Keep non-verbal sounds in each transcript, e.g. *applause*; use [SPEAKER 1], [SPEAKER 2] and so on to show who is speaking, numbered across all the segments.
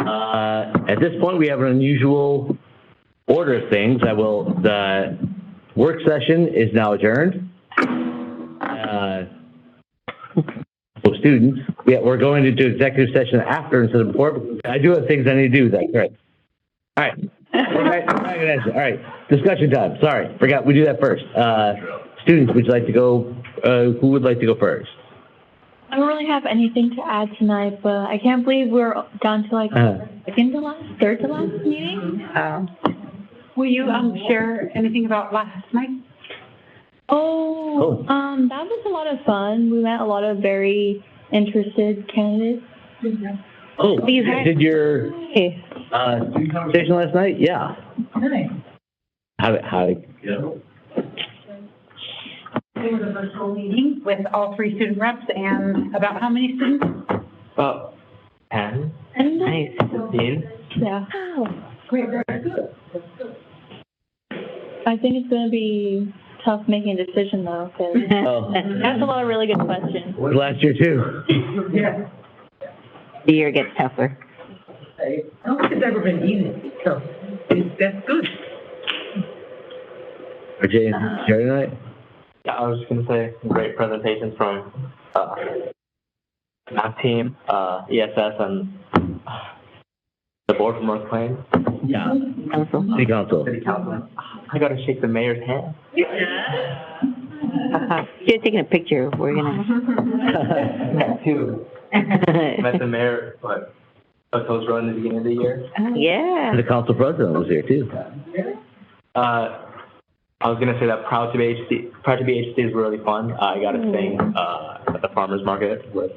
[SPEAKER 1] Uh, At this point, we have an unusual order of things. I will, the work session is now adjourned. Uh, For students, yeah, we're going to do executive session after instead of before. I do have things I need to do, that's right. All right. All right, all right, all right. discussion time, sorry, forgot, we do that first. Uh, Students, would you like to go, uh, who would like to go first?
[SPEAKER 2] I don't really have anything to add tonight, but I can't believe we're down to like
[SPEAKER 1] Uh.
[SPEAKER 2] second to last, third to last meeting.
[SPEAKER 3] Oh. Will you um, share anything about last night?
[SPEAKER 2] Oh,
[SPEAKER 1] Cool.
[SPEAKER 2] um, that was a lot of fun. We met a lot of very interested candidates.
[SPEAKER 1] Oh,
[SPEAKER 3] You had-
[SPEAKER 1] did your,
[SPEAKER 2] Hey.
[SPEAKER 1] uh, conversation last night? Yeah. How, how,
[SPEAKER 3] It was a virtual meeting with all three student reps and about how many students?
[SPEAKER 4] About 10,
[SPEAKER 2] And uh,
[SPEAKER 3] Nice.
[SPEAKER 4] 15.
[SPEAKER 2] yeah,
[SPEAKER 3] Great.
[SPEAKER 2] I think it's gonna be tough making a decision though, because
[SPEAKER 1] oh,
[SPEAKER 2] that's a lot of really good questions.
[SPEAKER 1] last year too.
[SPEAKER 5] The year gets tougher.
[SPEAKER 6] I don't think it's ever been easy, so it's- that's good.
[SPEAKER 1] Are Jay and Jerry tonight?
[SPEAKER 4] Yeah, I was just gonna say great presentations from uh, math team, uh, ESS, and uh, the board from North Plains.
[SPEAKER 1] Yeah.
[SPEAKER 5] Council.
[SPEAKER 1] City
[SPEAKER 4] *laughs*
[SPEAKER 1] council.
[SPEAKER 4] City council. I gotta shake the mayor's hand.
[SPEAKER 5] She's Oh, taking a picture. We're gonna.
[SPEAKER 4] too.
[SPEAKER 5] *laughs*
[SPEAKER 4] Met the mayor, but I was running at the beginning of the year.
[SPEAKER 5] Yeah.
[SPEAKER 1] The council president was here too.
[SPEAKER 4] Uh, I was gonna say that proud to be HD, proud to be HD is really fun. I got to sing uh, at the farmers market with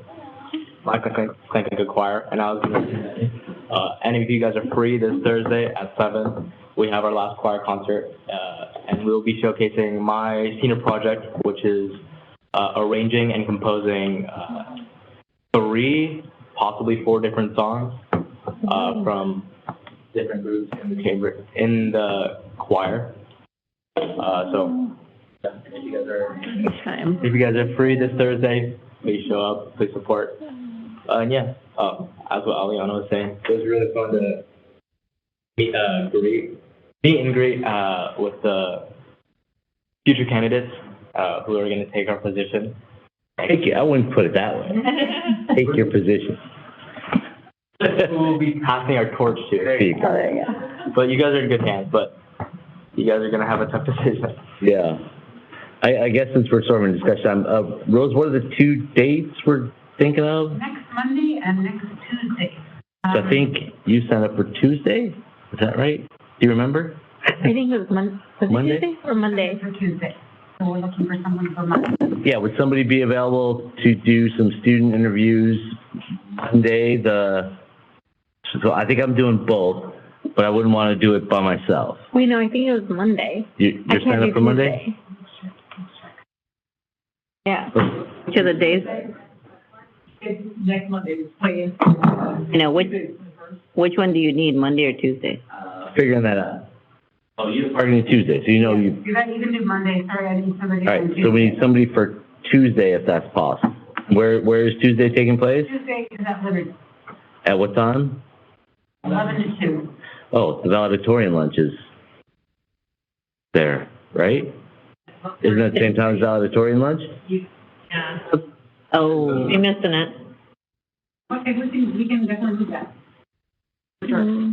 [SPEAKER 4] my Clank choir, and I was gonna say, uh, any of you guys are free this Thursday at seven. We have our last choir concert, uh, and we'll be showcasing my senior project, which is uh, arranging and composing uh, three, possibly four different songs uh, from different groups in the chamber in the choir. Uh, so if you guys are
[SPEAKER 5] Time.
[SPEAKER 4] if you guys are free this Thursday, please show up, please support. Uh, and yeah, uh, as what Aliana was saying, it was really fun to meet, uh, greet, meet and greet uh, with the future candidates uh, who are going to take our position. *laughs*
[SPEAKER 1] Take you, I wouldn't put it that way. Take your position.
[SPEAKER 4] who will be passing our torch
[SPEAKER 1] There
[SPEAKER 4] to.
[SPEAKER 1] you go.
[SPEAKER 4] But you guys are in good hands. But you guys are going to have a tough *laughs* decision.
[SPEAKER 1] Yeah. I, I guess since we're sort of in discussion, um, uh, Rose, what are the two dates we're thinking of?
[SPEAKER 3] Next Monday and next Tuesday. Um,
[SPEAKER 1] So I think you signed up for Tuesday, is that right? Do you remember?
[SPEAKER 5] I think it was Mon- was it
[SPEAKER 1] Monday?
[SPEAKER 5] Tuesday or Monday.
[SPEAKER 3] For Tuesday. So we're looking for someone for Monday.
[SPEAKER 1] Yeah, would somebody be available to do some student interviews Monday, the, so I think I'm doing both, but I wouldn't want to do it by myself.
[SPEAKER 5] Wait, no, I think it was Monday.
[SPEAKER 1] You,
[SPEAKER 5] I
[SPEAKER 1] you're
[SPEAKER 5] can't
[SPEAKER 1] signing
[SPEAKER 5] do
[SPEAKER 1] up for Monday?
[SPEAKER 5] Tuesday. Yeah. Which of the days?
[SPEAKER 6] Next Monday is playing.
[SPEAKER 5] You know which which one do you need? Monday or Tuesday?
[SPEAKER 1] Figuring that out. Oh, you're targeting Tuesday, so you know you,
[SPEAKER 3] You guys, you can do Monday. Sorry, I need somebody
[SPEAKER 1] all right,
[SPEAKER 3] on
[SPEAKER 1] so we need
[SPEAKER 3] Tuesday.
[SPEAKER 1] somebody for Tuesday if that's possible. Where, where is Tuesday taking place?
[SPEAKER 3] Tuesday is at Liberty,
[SPEAKER 1] At what time?
[SPEAKER 3] 11 to 2.
[SPEAKER 1] Oh, the valedictorian lunch is there, right? Isn't that the same time as valedictorian lunch?
[SPEAKER 5] Oh, you missed it.
[SPEAKER 3] Okay, we can, we can definitely do that. Sure.
[SPEAKER 2] Mm-hmm.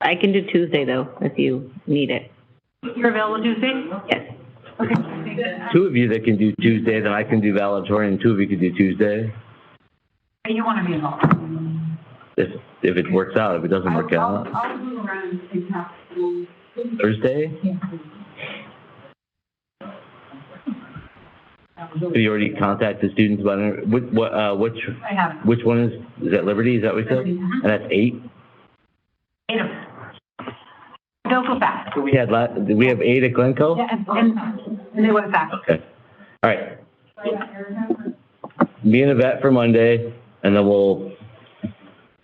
[SPEAKER 5] I can do Tuesday though if you need it.
[SPEAKER 3] You're available Tuesday?
[SPEAKER 5] Yes.
[SPEAKER 3] Okay. I think that-
[SPEAKER 1] Two of you that can do Tuesday, then I can do valedictorian, two of you can do Tuesday.
[SPEAKER 3] You want to be involved.
[SPEAKER 1] If, if it works out, if it doesn't work
[SPEAKER 3] I'll-
[SPEAKER 1] out,
[SPEAKER 3] I'll- I'll move around and talk to you.
[SPEAKER 1] Thursday? Have you already contacted students about, it? which, what, uh, which,
[SPEAKER 3] I have.
[SPEAKER 1] which one is, is that Liberty, is that what you said?
[SPEAKER 3] Liberty,
[SPEAKER 1] And
[SPEAKER 3] uh-huh.
[SPEAKER 1] that's eight?
[SPEAKER 3] Eight of them. They'll go back.
[SPEAKER 1] We had, la- did we have eight at Glencoe?
[SPEAKER 3] Yeah, and, and- and they went back.
[SPEAKER 1] Okay, all right. me and Yvette for Monday, and then we'll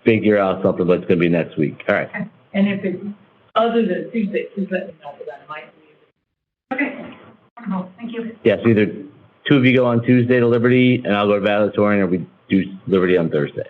[SPEAKER 1] figure out something, but it's gonna be next week. All right.
[SPEAKER 6] And if it's other than Tuesday, please let me know, because I might be.
[SPEAKER 3] Okay. Wonderful. Thank you.
[SPEAKER 1] Yeah, so either two of you go on Tuesday to Liberty, and I'll go to valedictorian, or we do Liberty on Thursday.